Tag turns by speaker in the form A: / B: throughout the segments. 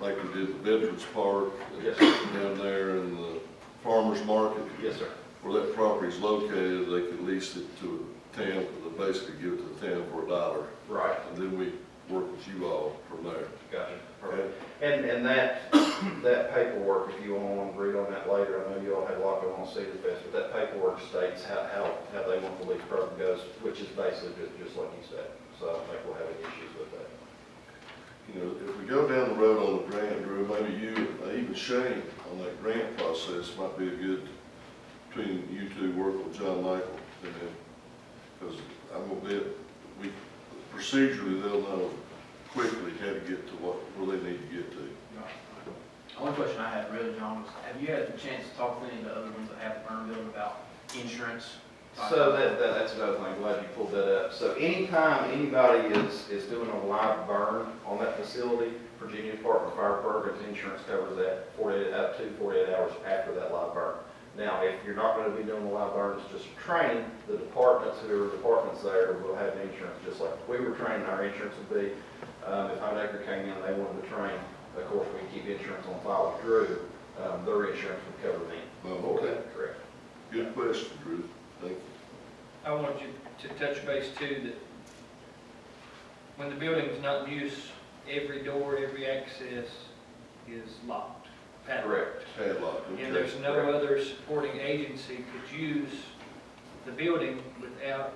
A: like we did the Veterans Park. and
B: Yes.
A: Down there and the farmer's market.
B: Yes, sir.
A: Where that property's located, they could lease it to a town, they basically give it to the town for a dollar.
B: Right.
A: And then we work with you all from there.
B: Gotcha. Perfect. And, and that, that paperwork, if you all want to read on that later, I know you all had a lot going on Cedar Fest, but that paperwork states how, how, how they want the lease program goes, which is basically just, just like you said. So I don't think we'll have any issues with that.
A: You know, if we go down the road on the grant, Drew, maybe you, uh, even Shane, on that grant process might be a good, between you two, work with John Michael, and then, because I'm a bit, we, procedurally, they'll know quickly how to get to what, where they need to get to.
C: One question I had really, John, was have you had the chance to talk to any of the other ones that have Burnville about insurance?
B: So that, that, that's another thing, glad you pulled that up. So anytime anybody is, is doing a live burn on that facility, Virginia Department of Fire Programs insurance covers that forty-eight, up to forty-eight hours after that live burn. Now, if you're not gonna be doing a live burn, it's just training, the departments, whoever department's there will have insurance, just like we were training, our insurance would be. Um, if Hunt Acre came in, they wanted to train, of course, we keep insurance on file with Drew, um, their insurance would cover me.
A: Oh, okay.
B: Correct.
A: Good question, Drew, thank you.
D: I wanted you to touch base too, that when the building was not in use, every door, every access is locked, padlocked.
B: Correct.
A: Padlock, okay.
D: And there's no other supporting agency could use the building without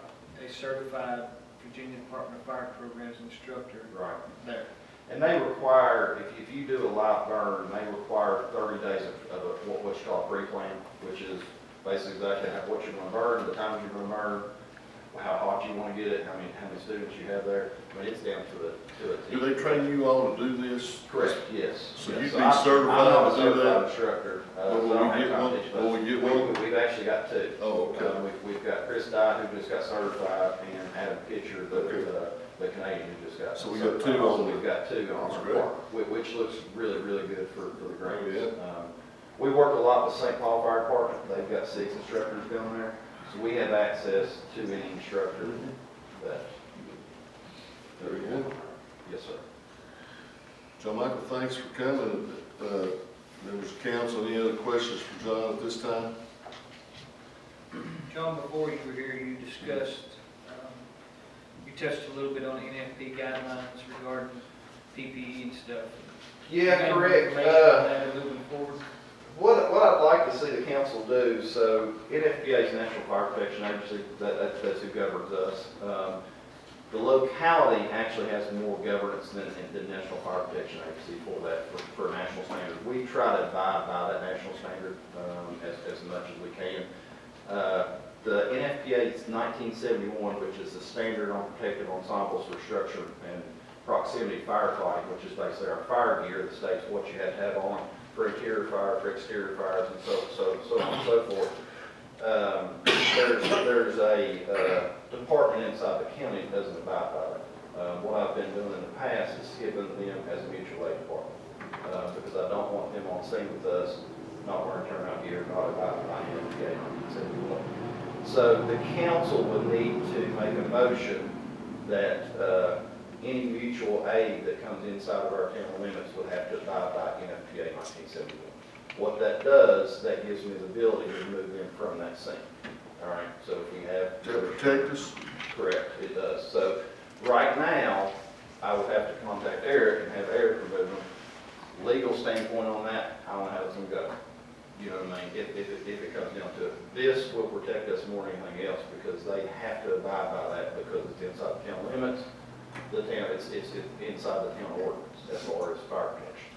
D: a certified Virginia Department of Fire Programs instructor
B: Right.
D: there.
B: And they require, if, if you do a live burn, they require thirty days of, of a- what, what's called pre-plan, which is basically exactly how, what you're gonna burn, the time you're gonna burn, how hot you wanna get it, how many, how many students you have there, I mean, it's down to a, to a
A: Do
B: T.
A: they train you all to do this?
B: Correct, yes.
A: So you'd
B: Yes.
A: be
B: I'm-
A: certified
B: I'm
A: to
B: not a
A: do that?
B: certified instructor. uh,
A: Well,
B: so
A: will
B: I don't
A: we
B: have
A: get one?
B: competition.
A: Will we get
B: We-
A: one?
B: we- We've actually got two.
A: Oh, okay.
B: Um, We've, we've got Chris Dye, who just got certified, and Adam Pitcher, the,
A: Okay.
B: uh, the Canadian, who just got.
A: So we got two
B: certified.
A: on
B: So
A: the-
B: We've got two on
A: That's
B: our
A: great.
B: park, whi- which looks really, really good for, for the
A: Yeah.
B: grants. Um, We work a lot with St. Paul Fire Department, they've got six instructors down there, so we have access to any instructor that.
A: Very good.
B: Yes, sir.
A: John Michael, thanks for coming. Uh, Members of council, any other questions for John at this time?
D: John, before you were here, you discussed, um, you touched a little bit on NFP guidelines regarding PPE and stuff.
B: Yeah,
D: Any
B: correct,
D: information
B: uh,
D: on that Moving forward.
B: What, what I'd like to see the council do, so NFPA is National Fire Protection Agency, that, that- that's who governs us. Um, The locality actually has more governance than, than National Fire Protection Agency for that, for, for national standard. We try to abide by that national standard, um, as, as much as we can. Uh, The NFPA is nineteen seventy-one, which is the standard on protective ensembles for structure and proximity firefighting, which is basically our fire gear that states what you have to have on for interior fire, for exterior fires, and so, so, so on and so forth. Um, There's, there's a uh, department inside the county that doesn't abide by that. Uh, What I've been doing in the past is skipping them as a mutual aid department, uh, because I don't want them on scene with us, not wearing turnout gear, not abiding by NFPA 1971. So the council would need to make a motion that uh, any mutual aid that comes inside of our town limits would have to abide by NFPA 1971. What that does, that gives me the ability to remove them from that scene. All right, so if we have.
A: To protect us?
B: Correct, it does. So right now, I would have to contact Eric and have Eric remove them. Legal standpoint on that, I don't know how it's gonna go. You know what I mean? If, if, it- if it comes down to it. This will protect us more than anything else because they have to abide by that because it's inside the town limits. The town, it's, it's it's inside the town ordinance as far as fire protection.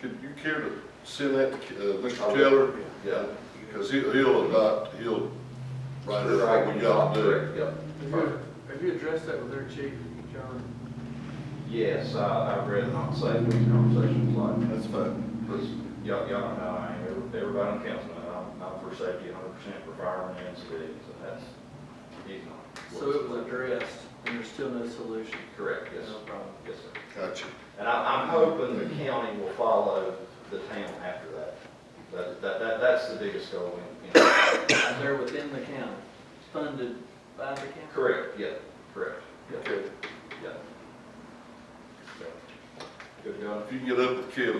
A: Could you care to send that to uh, Mr.
B: I will.
A: Taylor?
B: Yeah.
A: Because he'll, he'll adopt, he'll write it up what we got to do.
B: Correct, Yep.
E: Have you, have you addressed that with their chief, John?
B: Yes, I, I've read it on site, these conversations like
A: That's fine.
B: Because y'all, y'all know, I ain't, every- everybody on council, know I'm, I'm for safety hundred percent for firemen and civilians, so that's, he's not.
E: So it was addressed, and there's still no solution?
B: Correct, yes,
E: No problem.
B: yes, sir.
A: Gotcha.
B: And I, I'm hoping the county will follow the town after that. That, that, that, that's the biggest goal in, in,
E: And they're within the county, funded by the county?
B: correct, yeah, correct, yeah,
A: Okay.
B: yeah. Good going.
A: If you can get up with Kelly,